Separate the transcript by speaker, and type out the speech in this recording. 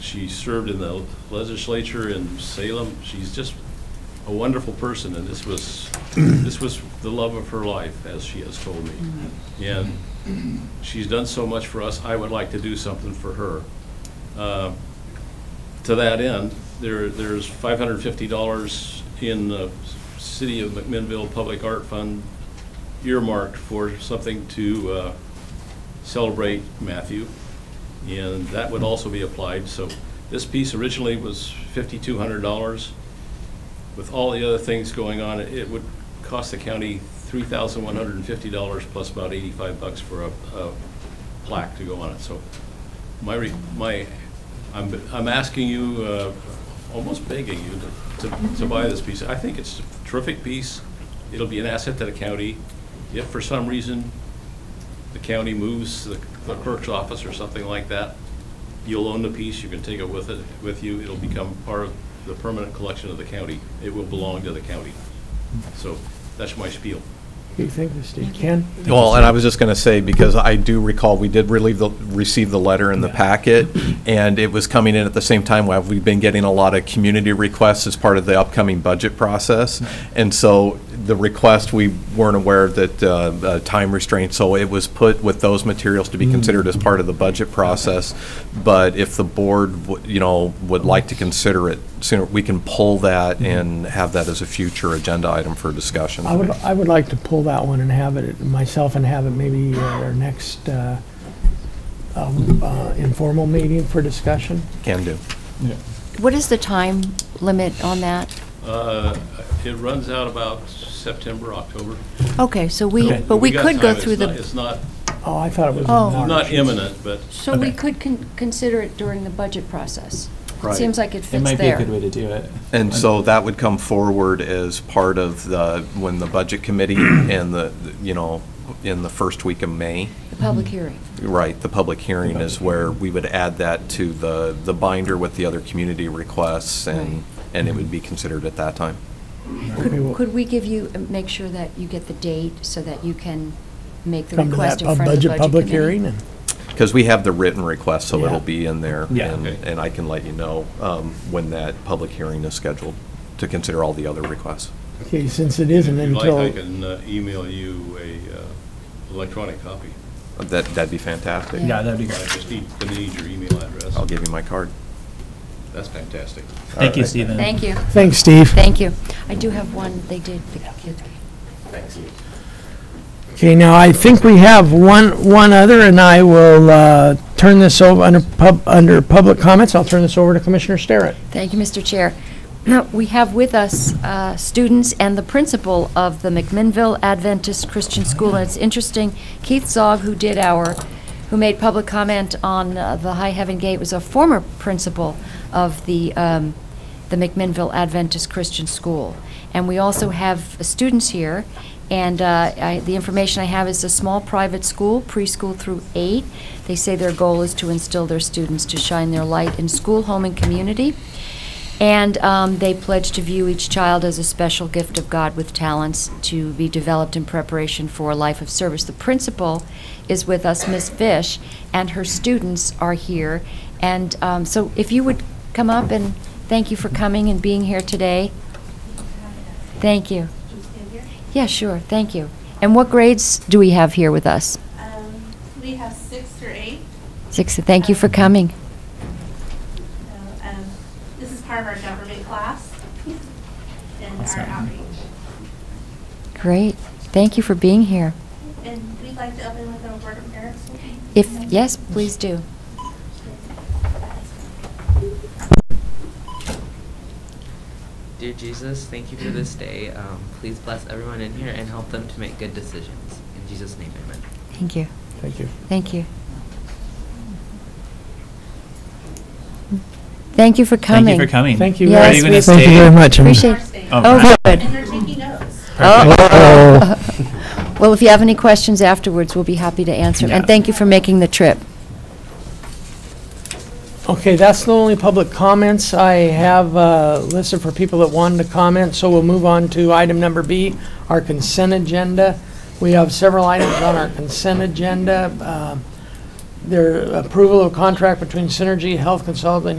Speaker 1: She served in the legislature in Salem. She's just a wonderful person, and this was, this was the love of her life, as she has told me. And she's done so much for us, I would like to do something for her. Uh, To that end, there, there's $550 in the City of McMinnville Public Art Fund earmarked for something to uh, celebrate Matthew, and that would also be applied. So this piece originally was $5,200. With all the other things going on, it would cost the county $3,150 plus about 85 bucks for a a plaque to go on it. So my, re- my, I'm, I'm asking you, uh, almost begging you to, to- to buy this piece. I think it's a terrific piece. It'll be an asset to the county. If for some reason the county moves the the
Speaker 2: Uh-huh.
Speaker 1: clerk's office or something like that, you'll own the piece, you can take it with it, with you. It'll become part of the permanent collection of the county. It will belong to the county.
Speaker 2: Hmm.
Speaker 1: So that's my spiel.
Speaker 2: Okay, thank you, Steve. Ken?
Speaker 3: Well, and I was just going to say, because I do recall, we did relieve the, receive the letter in the packet, and it was coming in at the same time, where we've been getting a lot of community requests as part of the upcoming budget process. And so the request, we weren't aware that, uh, uh, time restraint, so it was put with those materials to be considered as part of the budget process. But if the board, w- you know, would like to consider it sooner, we can pull that and have that as a future agenda item for discussion.
Speaker 2: I would, I would like to pull that one and have it, myself and have it maybe at our next uh, um, uh, informal meeting for discussion.
Speaker 3: Can do.
Speaker 4: What is the time limit on that?
Speaker 1: Uh, It runs out about September, October.
Speaker 4: Okay, so we,
Speaker 2: Okay.
Speaker 4: but we
Speaker 1: got
Speaker 4: could go
Speaker 1: time. It's
Speaker 4: through
Speaker 1: not- It's
Speaker 4: the,
Speaker 1: not,
Speaker 2: Oh, I thought it was in
Speaker 4: Oh.
Speaker 2: March.
Speaker 1: not imminent, but
Speaker 4: so we
Speaker 5: Okay.
Speaker 4: could con- consider it during the budget process. It
Speaker 3: Right.
Speaker 4: seems like it
Speaker 5: It
Speaker 4: fits
Speaker 5: might be a good
Speaker 4: there.
Speaker 5: way to do it.
Speaker 3: And so that would come forward as part of the, when the budget committee and the, you know, in the first week of May,
Speaker 4: The public hearing.
Speaker 3: right, the public hearing is where we would add that to the, the binder with the other community requests
Speaker 4: Right.
Speaker 3: and, and it would be considered at that time.
Speaker 2: Okay, well,
Speaker 4: Could could we give you, uh, make sure that you get the date so that you can make the
Speaker 2: Come to that
Speaker 4: request in
Speaker 2: pub-
Speaker 4: front of the
Speaker 2: budget
Speaker 4: budget
Speaker 2: public
Speaker 4: committee?
Speaker 2: hearing and,
Speaker 3: Because we have the written request, so
Speaker 2: Yeah.
Speaker 3: it'll be in there.
Speaker 5: Yeah.
Speaker 3: And,
Speaker 1: Okay.
Speaker 3: and I can let you know um, when that public hearing is scheduled to consider all the other requests.
Speaker 2: okay, since it isn't
Speaker 1: if you'd like, I
Speaker 2: until,
Speaker 1: can uh, email you a uh, electronic copy.
Speaker 3: That, that'd be fantastic.
Speaker 5: Yeah, that'd be
Speaker 1: I
Speaker 5: great.
Speaker 1: just need, gonna need your email address.
Speaker 3: I'll give you my card.
Speaker 1: That's fantastic.
Speaker 5: Thank you, Stephen.
Speaker 4: Thank you,
Speaker 2: thanks, Steve.
Speaker 4: thank you. I do have one, they did, the kids.
Speaker 2: Okay, now I think we have one, one other and I will uh, turn this over, under pub, under public comments, I'll turn this over to Commissioner Starrett.
Speaker 4: Thank you, Mr. Chair. Now, we have with us uh, students and the principal of the McMinnville Adventist Christian School, and it's interesting, Keith Zog, who did our, who made public comment on uh, the High Heaven Gate, was a former principal of the, um, the McMinnville Adventist Christian School. And we also have uh, students here, and uh, I- the information I have is a small private school, preschool through eight. They say their goal is to instill their students to shine their light in school, home, and community. And um, they pledge to view each child as a special gift of God with talents to be developed in preparation for a life of service. The principal is with us, Miss Fish, and her students are here. And um, so if you would come up and thank you for coming and being here today. Thank you. Yeah, sure, thank you. And what grades do we have here with us?
Speaker 6: Um, We have six through eight.
Speaker 4: Six, thank you for coming.
Speaker 6: So, um, This is part of our government class and our
Speaker 5: Awesome.
Speaker 6: outreach.
Speaker 4: Great, thank you for being here.
Speaker 6: And we'd like to open with a word of prayer.
Speaker 4: If, yes, please do.
Speaker 7: Dear Jesus, thank you for this day. Um, please bless everyone in here and help them to make good decisions. In Jesus' name, amen.
Speaker 4: Thank you.
Speaker 2: Thank you.
Speaker 4: Thank you. Thank you for coming.
Speaker 5: Thank you for coming.
Speaker 2: Thank you.
Speaker 4: Yes,
Speaker 5: Are you going to
Speaker 4: we-
Speaker 5: stay?
Speaker 2: Thank you very much.
Speaker 4: Appreciate
Speaker 6: First day.
Speaker 5: Oh,
Speaker 4: Oh, good.
Speaker 6: And they're taking notes.
Speaker 5: Perfect.
Speaker 2: Oh.
Speaker 4: Well, if you have any questions afterwards, we'll be happy to answer. 'em. And
Speaker 5: Yeah.
Speaker 4: thank you for making the trip.
Speaker 2: Okay, that's the only public comments I have uh, listed for people that wanted to comment, so we'll move on to item number B, our consent agenda. We have several items on our consent Uh, agenda. Um, There, approval of contract between Synergy Health Consultant